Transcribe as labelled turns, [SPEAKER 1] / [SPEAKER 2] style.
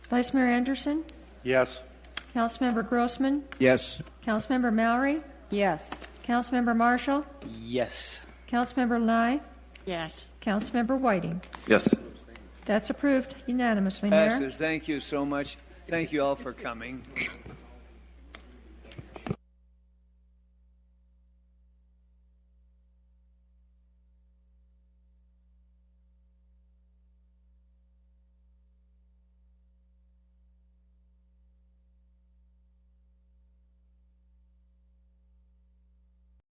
[SPEAKER 1] Vice Mayor Anderson,
[SPEAKER 2] Yes.
[SPEAKER 1] Councilmember Grossman,
[SPEAKER 3] Yes.
[SPEAKER 1] Councilmember Mallory,
[SPEAKER 4] Yes.
[SPEAKER 1] Councilmember Marshall,
[SPEAKER 3] Yes.
[SPEAKER 1] Councilmember Lai,
[SPEAKER 4] Yes.
[SPEAKER 1] Councilmember Whiting.
[SPEAKER 5] Yes.
[SPEAKER 1] That's approved unanimously, Mayor.
[SPEAKER 6] Passes. Thank you so much. Thank you all for coming.